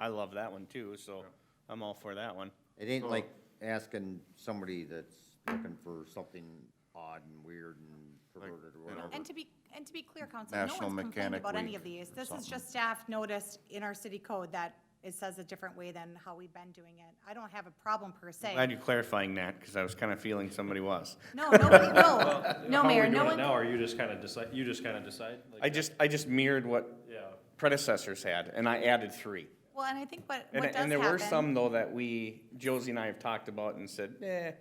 I love that one too, so I'm all for that one. It ain't So- like asking somebody that's looking for something odd and weird and perverted or you know, whatever. And to be, and to be clear, council, no National one's complained Mechanic about any Week of these. or This is something. just staff noticed in our city code that it says a different way than how we've been doing it. I don't have a problem per Glad se. you're clarifying that, because I was kind of feeling somebody was. No, nobody, no, no, How are we Mayor, no doing it one, Now, or you just kind of decide, you just kind of decide? like I that? just, I just mirrored what Yeah, predecessors had, and I added three. well, and I think what, what And, does happen. and there were some though that we, Josie and I have talked about and said, eh,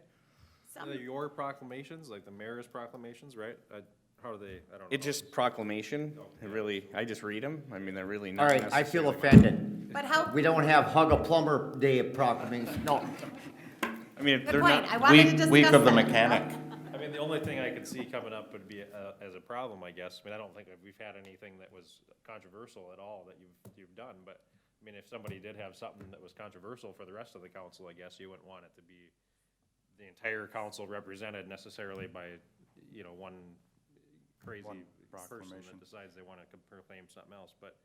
some- Either your proclamations, like the mayor's proclamations, right? I, how do they, I don't know. it just proclamation, it really, I just read them, I mean, they're really All not right, I necessarily. feel offended. But how, We good don't have hug a plumber day of proclamation, no. I mean, if they're point, I not, wanted to discuss Week, that. week of the mechanic. I mean, the only thing I could see coming up would be uh, as a problem, I guess. I mean, I don't think that we've had anything that was controversial at all that you've, you've done, but, I mean, if somebody did have something that was controversial for the rest of the council, I guess you wouldn't want it to be the entire council represented necessarily by, you know, one crazy One person proclamation. that decides they want to proclaim something else, but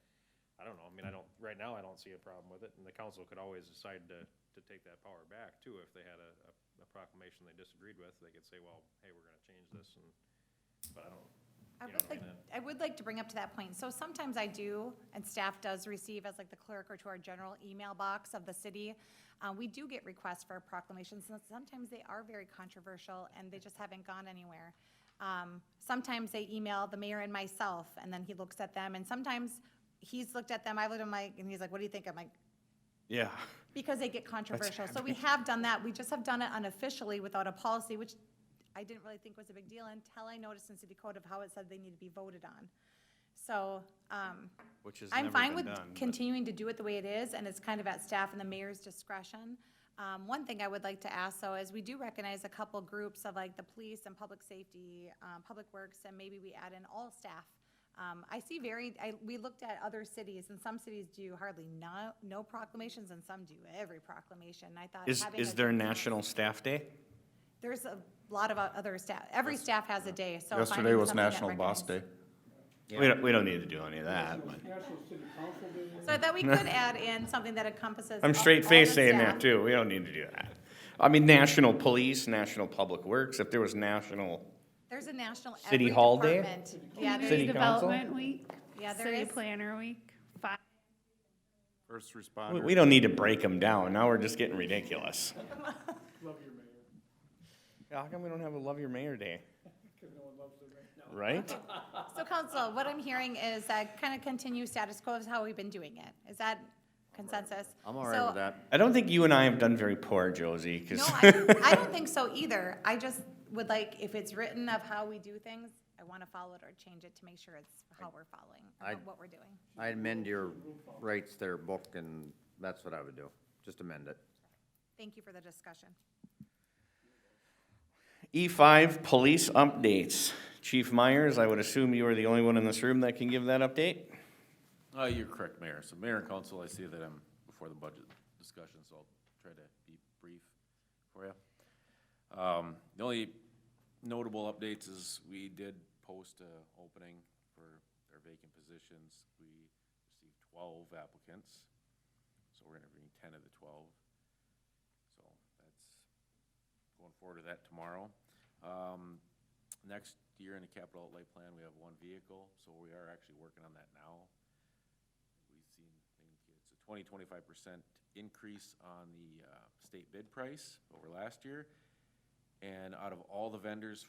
I don't know, I mean, I don't, right now, I don't see a problem with it, and the council could always decide to, to take that power back too, if they had a, a- a proclamation they disagreed with, they could say, well, hey, we're gonna change this, and, but I don't, I you would know, like, and I would like to bring up to that point, so sometimes I do, and staff does receive as like the clerk or to our general email box of the city, uh, we do get requests for proclamations, and sometimes they are very controversial, and they just haven't gone anywhere. Um, sometimes they email the mayor and myself, and then he looks at them, and sometimes he's looked at them, I've looked at my, and he's like, what do you think? I'm like, yeah, because they get controversial. So we have done that. We just have done it unofficially without a policy, which I didn't really think was a big deal until I noticed in city code of how it said they need to be voted on. So, um, which has I'm never fine been with done. but- continuing to do it the way it is, and it's kind of at staff and the mayor's discretion. Um, one thing I would like to ask, though, is we do recognize a couple groups of like the police and public safety, um, public works, and maybe we add in all staff. Um, I see varied, I, we looked at other cities, and some cities do hardly no, no proclamations, and some do every proclamation. I thought Is, having is a- there National Staff Day? There's a lot of o- other staff, every staff has a day, so. Yesterday finding was something that National Boss Day. recognizes- We don't, we don't need to do any of that, but. So I thought we could add in something that encompasses. all- I'm straight all faced the saying that staff. too. We don't need to do that. I mean, national police, national public works, if there was national, There's a national. City every Hall Day? department. Yeah, City Community there's, Council? Development Week. Yeah, there City is. Planner Week, five, First we, responder. we don't need to break them down. Now we're just getting ridiculous. Love your mayor. How come we don't have a love your mayor day? Because no one loves their mayor. Right? so council, what I'm hearing is that kind of continue status quo is how we've been doing it. Is that consensus? I'm all right So- with that. I don't think you and I have done very poor, Josie, No, because I, I don't think so either. I just would like, if it's written of how we do things, I want to follow it or change it to make sure it's how we're following, I- or what we're doing. I amend your rights there, book, and that's what I would do, just amend it. Thank you for the discussion. E5 E police updates. Chief Myers, I would assume you are the only one in this room that can give that update? Uh, you're correct, Mayor. So Mayor and Council, I see that I'm before the budget discussion, so I'll try to be brief for you. Um, the only notable updates is we did post a opening for our vacant positions. We received twelve applicants, so we're interviewing ten of the twelve. So that's going forward to that tomorrow. Um, next year in the capital outlay plan, we have one vehicle, so we are actually working on that now we've seen, I think it's a twenty, twenty-five percent increase on the uh, state bid price over last year. And out of all the vendors,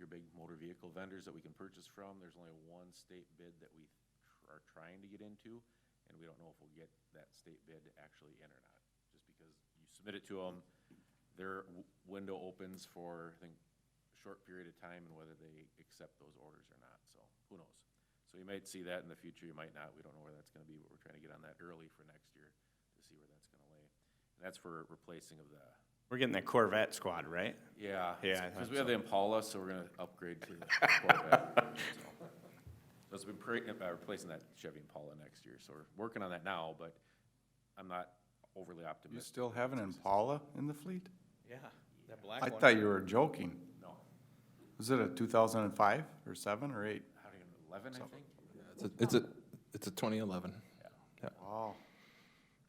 your big motor vehicle vendors that we can purchase from, there's only one state bid that we tr- are trying to get into, and we don't know if we'll get that state bid actually in or not, just because you submit it to them, their w- window opens for, I think, a short period of time, and whether they accept those orders or not, so who knows? So you might see that in the future, you might not, we don't know where that's gonna be, but we're trying to get on that early for next year to see where that's gonna lay. And that's for replacing of the, We're getting that Corvette squad, right? yeah. Yeah, I Because thought we have the Impala, so we're gonna upgrade to the Corvette. so. So it's been pre- uh, replacing that Chevy Impala next year, so we're working on that now, but I'm not overly You optimistic. still have an Impala in the fleet? Yeah, that black I thought you were joking. No, Was it a two thousand and five, or seven, or eight? how do you, eleven, I think? It's a, it's a, it's a 2011. Wow.